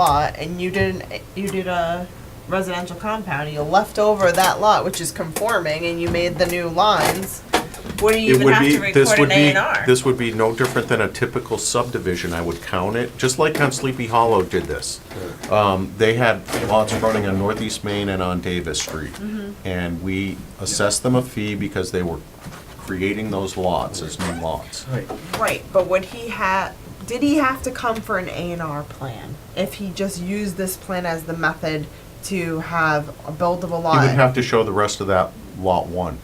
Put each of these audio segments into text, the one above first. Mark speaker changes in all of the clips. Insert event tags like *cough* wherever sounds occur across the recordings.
Speaker 1: lot and you did an, you did a residential compound and you left over that lot which is conforming and you made the new lines, what do you
Speaker 2: It
Speaker 1: even
Speaker 2: would
Speaker 1: have
Speaker 2: be,
Speaker 1: to
Speaker 2: this
Speaker 1: record an
Speaker 2: would
Speaker 1: A
Speaker 2: be,
Speaker 1: and R?
Speaker 2: this would be no different than a typical subdivision, I would count it, just like on Sleepy Hollow did this. Um, They had lots running on Northeast Main and on Davis Street.
Speaker 1: Mm-hmm.
Speaker 2: And we assessed them a fee because they were creating those lots as new lots.
Speaker 3: Right.
Speaker 1: Right, but would he have, did he have to come for an A and R plan? If he just used this plan as the method to have a buildable
Speaker 2: You would
Speaker 1: lot?
Speaker 2: have to show the rest of that Lot 1.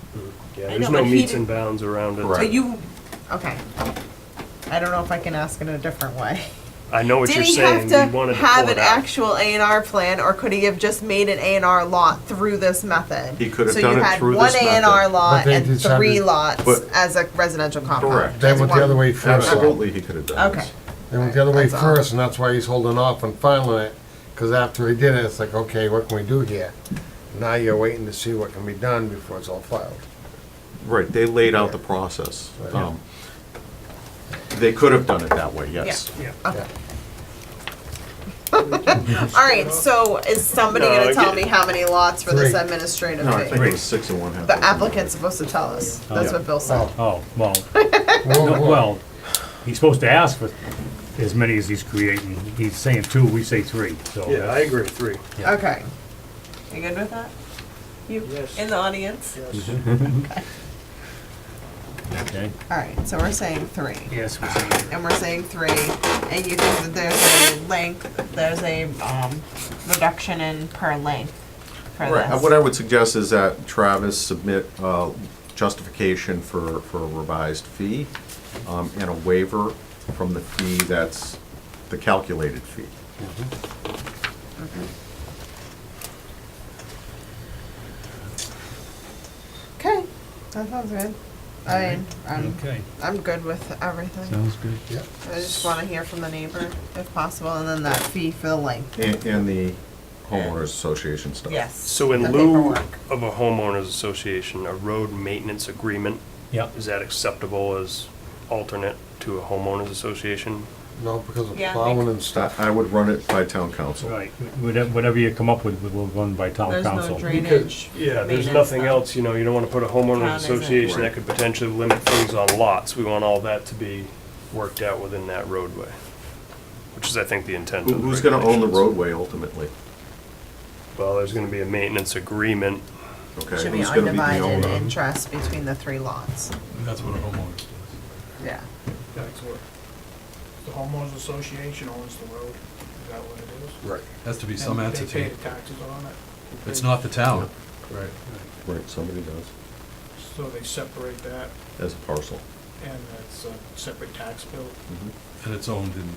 Speaker 3: Yeah,
Speaker 1: I
Speaker 3: there's
Speaker 1: know,
Speaker 3: no
Speaker 1: but he
Speaker 3: meets
Speaker 1: did-
Speaker 3: and bounds around it.
Speaker 1: So
Speaker 2: Right.
Speaker 1: you, okay. I don't know if I can ask in a different way.
Speaker 3: I know what
Speaker 1: Did
Speaker 3: you're
Speaker 1: he
Speaker 3: saying.
Speaker 1: have
Speaker 3: You
Speaker 1: to
Speaker 3: wanted to
Speaker 1: have
Speaker 3: pull
Speaker 1: an
Speaker 3: it out.
Speaker 1: actual A and R plan, or could he have just made an A and R lot through this method?
Speaker 2: He could have
Speaker 1: so
Speaker 2: done
Speaker 1: you
Speaker 2: it
Speaker 1: had
Speaker 2: through
Speaker 1: one
Speaker 2: this
Speaker 1: A and R
Speaker 2: method.
Speaker 1: lot
Speaker 4: But they
Speaker 1: and
Speaker 4: decided-
Speaker 1: three lots
Speaker 2: But-
Speaker 1: as a residential compound.
Speaker 2: Correct.
Speaker 4: They
Speaker 1: That's
Speaker 4: went the
Speaker 1: one-
Speaker 4: other way first. though.
Speaker 2: Absolutely, he could have done
Speaker 1: Okay.
Speaker 2: this.
Speaker 4: They went the other way
Speaker 1: That's all.
Speaker 4: first, and that's why he's holding off on filing it, because after he did it, it's like, okay, what can we do here? Now you're waiting to see what can be done before it's all filed.
Speaker 2: Right, they laid out the process. Um, They could have done it that way, yes.
Speaker 4: Yeah.
Speaker 1: All right. So is somebody
Speaker 3: No,
Speaker 1: going to
Speaker 3: I
Speaker 1: tell
Speaker 3: get-
Speaker 1: me how many lots for this
Speaker 4: Three.
Speaker 1: administrative
Speaker 2: No, I think
Speaker 1: fee?
Speaker 2: it was six and one half.
Speaker 1: The applicant's supposed to tell us. That's
Speaker 5: Yeah.
Speaker 1: what Bill said.
Speaker 4: Oh,
Speaker 5: Oh,
Speaker 1: *laughs*
Speaker 5: well,
Speaker 4: whoa,
Speaker 5: no,
Speaker 4: whoa.
Speaker 5: well, he's supposed to ask for as many as he's creating. He's saying two, we say three, so.
Speaker 3: Yeah, I agree. Three.
Speaker 5: Yeah.
Speaker 1: Okay. You good with that? You
Speaker 3: Yes.
Speaker 1: in the audience?
Speaker 5: Okay.
Speaker 1: All right. So we're saying three.
Speaker 5: Yes, we say three.
Speaker 1: and we're saying three, and you think that there's a length, there's a, um, reduction in per length for
Speaker 2: Right, uh,
Speaker 1: this.
Speaker 2: what I would suggest is that Travis submit uh, justification for, for a revised fee um, and a waiver from the fee that's the calculated fee.
Speaker 1: Okay, that sounds good. I mean, I'm,
Speaker 5: Okay,
Speaker 1: I'm good with everything.
Speaker 5: sounds good.
Speaker 4: Yeah.
Speaker 1: I just wanna hear from the neighbor if possible, and then that fee for the length.
Speaker 2: And, and the homeowners association stuff.
Speaker 1: Yes.
Speaker 3: So
Speaker 1: The
Speaker 3: in lieu
Speaker 1: paperwork.
Speaker 3: of a homeowners association, a road maintenance agreement,
Speaker 5: Yep.
Speaker 3: is that acceptable as alternate to a homeowners association?
Speaker 4: No, because of
Speaker 1: Yeah, I
Speaker 4: plowing
Speaker 1: think-
Speaker 4: and
Speaker 2: I-
Speaker 4: stuff.
Speaker 2: I would run it by town council.
Speaker 5: Right, whatever, whatever you come up with, we'll run by town
Speaker 1: There's no
Speaker 5: council.
Speaker 1: drainage.
Speaker 3: Yeah, there's
Speaker 1: maintenance
Speaker 3: nothing
Speaker 1: stuff.
Speaker 3: else, you know, you don't wanna put a
Speaker 1: Town
Speaker 3: homeowners
Speaker 1: isn't.
Speaker 3: association that could potentially limit things on lots. We want all that to be worked out within that roadway, which is, I think, the intent
Speaker 2: Who-
Speaker 3: of the
Speaker 2: Who's gonna own the
Speaker 3: regulations.
Speaker 2: roadway ultimately?
Speaker 3: Well, there's gonna be a maintenance agreement.
Speaker 2: Okay,
Speaker 1: Should be
Speaker 2: who's gonna the
Speaker 1: undivided
Speaker 2: owner?
Speaker 1: interest between the three lots.
Speaker 6: That's what a homeowner does.
Speaker 1: Yeah.
Speaker 7: That's what, the homeowners association owns the road, is that what it is?
Speaker 4: Right.
Speaker 6: Has to be some
Speaker 7: And They
Speaker 6: entity.
Speaker 7: pay the taxes on it.
Speaker 6: It's not the town. Right.
Speaker 2: Right, somebody does,
Speaker 7: So they separate that,
Speaker 2: as a parcel. Mm-hmm.
Speaker 7: and it's a separate tax bill.
Speaker 6: And it's owned in,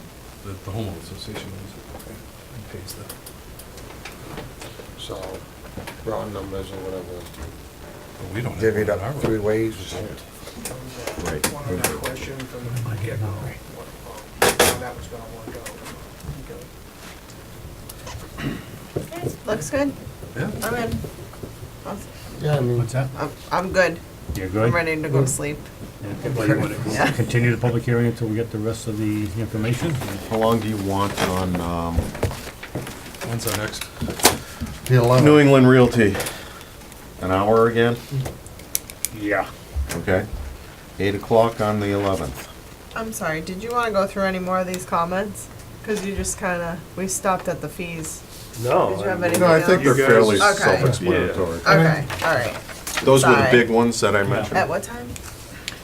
Speaker 6: the the homeowner association owns it and pays that.
Speaker 4: So, round numbers or whatever,
Speaker 6: But we don't have.
Speaker 4: divvy it
Speaker 6: our
Speaker 4: up
Speaker 6: road.
Speaker 4: three ways or something.
Speaker 2: Right.
Speaker 7: One of that question from the get-go, what, how that was gonna work out. Okay.
Speaker 1: Looks good.
Speaker 6: Yeah.
Speaker 1: I'm in.
Speaker 4: Yeah, I mean,
Speaker 5: What's that?
Speaker 1: I'm, I'm good.
Speaker 5: You're
Speaker 1: I'm
Speaker 5: good?
Speaker 1: ready to go to sleep.
Speaker 5: Yeah, well, you wanna
Speaker 1: Yeah.
Speaker 5: Continue the public hearing until we get the rest of the information?
Speaker 2: How long do you want on, um,
Speaker 6: When's our next?
Speaker 4: the
Speaker 2: New
Speaker 4: eleven,
Speaker 2: England Realty? An hour again?
Speaker 5: Yeah.
Speaker 2: Okay. Eight o'clock on the eleventh.
Speaker 1: I'm sorry, did you want to go through any more of these comments? Because you just kind of, we stopped at the fees.
Speaker 3: No.
Speaker 1: Did you have
Speaker 3: I mean-
Speaker 1: any-
Speaker 2: No, I think they're
Speaker 3: You guys-
Speaker 2: fairly
Speaker 1: Okay.
Speaker 2: self-explanatory.
Speaker 1: Okay, all right.
Speaker 2: Those were the
Speaker 1: Sorry.
Speaker 2: big ones that I
Speaker 1: At
Speaker 2: mentioned.
Speaker 1: what time?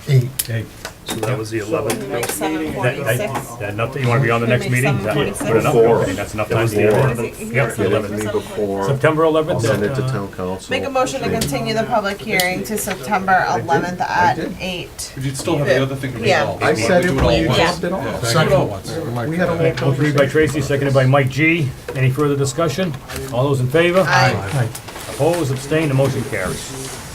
Speaker 4: eight,
Speaker 5: Hey,
Speaker 3: So that was the eleventh.
Speaker 1: Like seven
Speaker 5: that,
Speaker 1: forty-six?
Speaker 5: that, that not that you wanna be on the
Speaker 1: Can
Speaker 5: next
Speaker 1: we
Speaker 5: meeting?
Speaker 1: make
Speaker 5: Is that-
Speaker 1: some
Speaker 5: put it up?
Speaker 2: Four.
Speaker 5: Okay, That's enough
Speaker 2: It
Speaker 5: time
Speaker 2: was
Speaker 5: to get
Speaker 2: four.
Speaker 5: it. Yep, it's the
Speaker 2: Get it
Speaker 5: 11th.
Speaker 2: to me before,
Speaker 5: September
Speaker 2: I'll
Speaker 5: 11th.
Speaker 2: send it to
Speaker 5: uh,
Speaker 2: town council.
Speaker 1: Make a motion to continue the public hearing to September eleventh at eight.
Speaker 6: But you'd still have the other thing to
Speaker 1: Yeah.
Speaker 6: resolve.
Speaker 2: I
Speaker 6: We
Speaker 2: said
Speaker 6: do
Speaker 2: if
Speaker 6: all
Speaker 2: we
Speaker 6: once.
Speaker 1: dropped
Speaker 2: it off.
Speaker 6: Yeah,
Speaker 4: Second.
Speaker 6: do it all once.
Speaker 4: Mike,
Speaker 2: had a whole
Speaker 5: Motion made by Tracy, seconded by Mike G. Any further discussion? All those in favor?
Speaker 1: Aye.
Speaker 5: Opposed, abstained, the motion carries.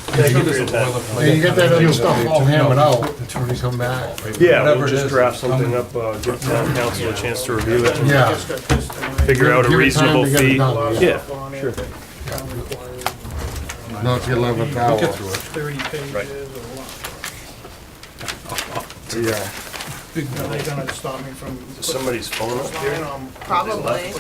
Speaker 3: Thank you for your time.
Speaker 4: Hey, you get that other stuff all hammered out, when you come back.
Speaker 3: Yeah,
Speaker 6: Whatever
Speaker 3: we'll
Speaker 6: it
Speaker 3: just
Speaker 6: is,
Speaker 3: draft
Speaker 6: it's
Speaker 3: something
Speaker 6: coming.
Speaker 3: up, uh, give town council a chance to review it and
Speaker 4: Yeah.
Speaker 7: Just got this tonight.
Speaker 3: figure out
Speaker 4: Give
Speaker 3: a
Speaker 4: it time to
Speaker 3: reasonable
Speaker 4: get it
Speaker 3: fee.
Speaker 4: done,
Speaker 3: Yeah.
Speaker 7: Stuff on it that town required,
Speaker 4: Not the eleventh hour.
Speaker 6: We'll get through it.
Speaker 7: Thirty pages or what?
Speaker 4: Yeah.
Speaker 7: Are they gonna stop me from?
Speaker 3: Is somebody's phone up
Speaker 7: putting
Speaker 3: here?
Speaker 7: mine on-
Speaker 1: Probably.